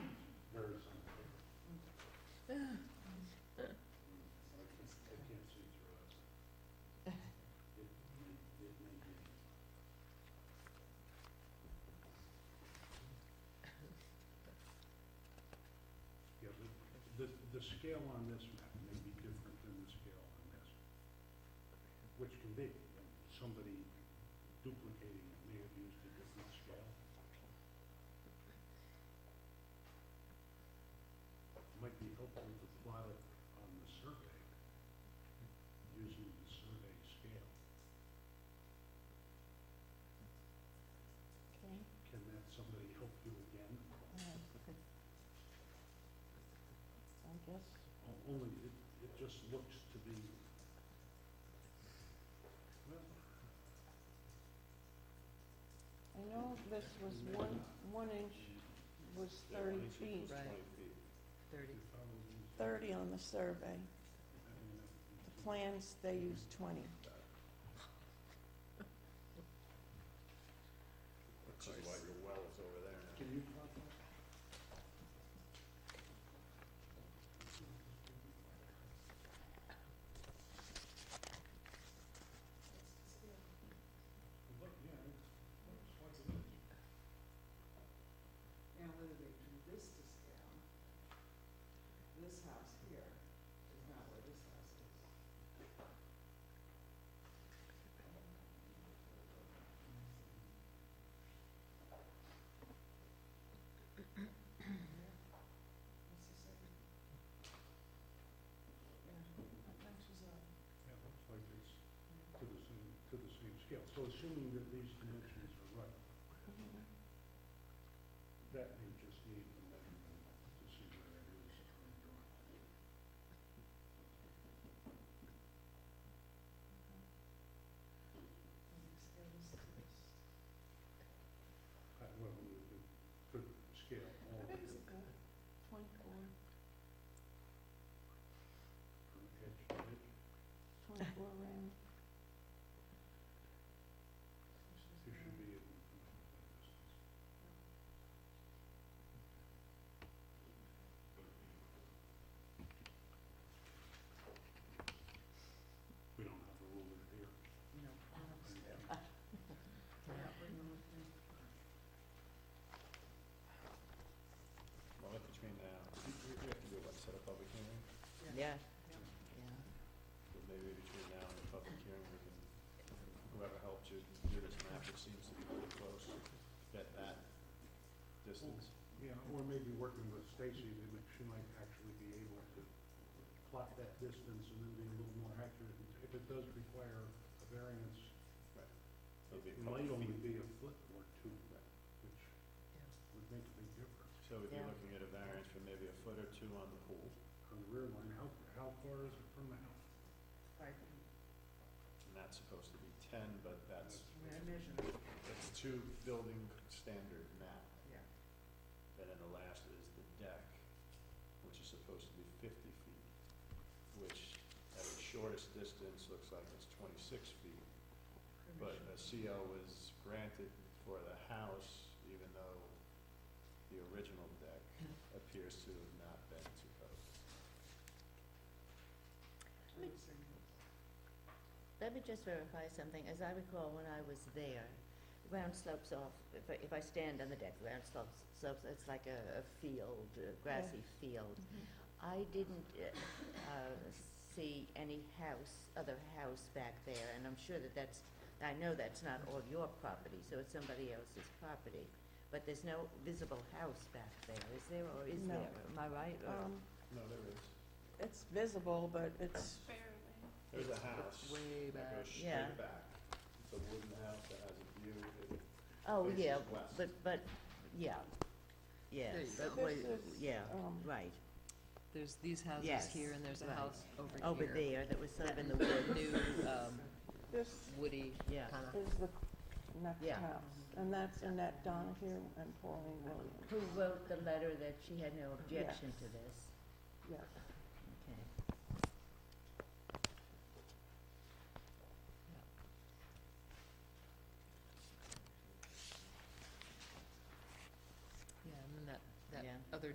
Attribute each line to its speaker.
Speaker 1: the, the scale on this map may be different than the scale on this, which can be, somebody duplicating it may have used a different scale. Might be helpful to plot it on the survey, using the survey scale.
Speaker 2: Okay,
Speaker 1: Can that somebody help you again?
Speaker 2: all right, good. I guess,
Speaker 1: O- Only, it, it just looks to be, well,
Speaker 2: I know this was one, one inch was thirty feet,
Speaker 3: Right, thirty.
Speaker 1: if I was using-
Speaker 2: thirty on the survey.
Speaker 1: I mean, I-
Speaker 2: The plans, they use twenty.
Speaker 4: Which is why your well is over there now.
Speaker 1: Can you plot that? Look, yeah, it's- it's what's it is.
Speaker 5: Now, whether they do this to scale, this house here is not where this house is. What's the second? Yeah, how much is that?
Speaker 1: Yeah, it looks like it's to the same, to the same scale. So assuming that these dimensions are right, that may just need a measurement to see where it is on the drawing.
Speaker 5: Whether it scales to this.
Speaker 1: I- Well, we could- could scale all
Speaker 5: How
Speaker 1: of
Speaker 5: big is
Speaker 1: it
Speaker 5: it, Bill?
Speaker 2: Twenty-four,
Speaker 1: from edge to edge.
Speaker 2: twenty-four round.
Speaker 1: You should be able to come up with that distance. We don't have a ruler here.
Speaker 3: No,
Speaker 4: Well, look between now, we we- we have to do it, like, set a public hearing,
Speaker 3: yeah,
Speaker 4: but maybe between now and the public hearing, we can, whoever helped you do this map, it seems to be pretty close at that distance.
Speaker 1: Yeah, or maybe working with Stacy, they might- she might actually be able to plot that distance and then be a little more accurate. If it does require a variance,
Speaker 4: It'll be a
Speaker 1: it
Speaker 4: couple
Speaker 1: might only
Speaker 4: feet.
Speaker 1: be a foot or two, which would make a big difference.
Speaker 4: So we'd be
Speaker 3: Yeah.
Speaker 4: looking at a variance for maybe a foot or two on the pool.
Speaker 1: On the rear line, how, how far is it from the house?
Speaker 5: Five feet.
Speaker 4: And that's supposed to be ten, but that's,
Speaker 5: I mean, I measured it,
Speaker 4: that's two building standard now.
Speaker 5: yeah.
Speaker 4: And then the last is the deck, which is supposed to be fifty feet, which at its shortest distance looks like it's twenty-six feet. But a CO was granted for the house, even though the original deck appears to have not been to code.
Speaker 5: I would say that.
Speaker 3: Let me just verify something. As I recall, when I was there, ground slopes off, if I, if I stand on the deck, ground slopes, slopes, it's like a, a field, a grassy field.
Speaker 2: Mm-hmm.
Speaker 3: I didn't, uh, uh, see any house, other house back there, and I'm sure that that's, I know that's not all your property, so it's somebody else's property. But there's no visible house back there, is there, or is
Speaker 2: No.
Speaker 3: there? Am I right? or-
Speaker 2: Um,
Speaker 4: No, there is.
Speaker 2: it's visible, but it's,
Speaker 4: There's a
Speaker 3: It's-
Speaker 4: house
Speaker 3: it's way
Speaker 4: that
Speaker 3: back.
Speaker 4: goes
Speaker 3: Yeah.
Speaker 4: straight back. It's a wooden house that has a view, it
Speaker 3: Oh,
Speaker 4: faces
Speaker 3: yeah,
Speaker 4: west.
Speaker 3: but, but, yeah, yeah,
Speaker 6: There you
Speaker 3: but
Speaker 2: go.
Speaker 3: wait,
Speaker 2: This is,
Speaker 3: yeah,
Speaker 2: um,
Speaker 3: right,
Speaker 6: There's these houses
Speaker 3: Yes,
Speaker 6: here and there's a
Speaker 3: right.
Speaker 6: house over here.
Speaker 3: over there, that was sort of in the
Speaker 6: That
Speaker 3: woods,
Speaker 6: New, um,
Speaker 2: this
Speaker 6: woody
Speaker 3: yeah.
Speaker 6: kind of,
Speaker 2: is the next
Speaker 3: Uh-huh. Yeah.
Speaker 2: house. And that's Annette Donahue and Pauline Williams,
Speaker 3: Who wrote the letter that she had no objection to this?
Speaker 2: yes.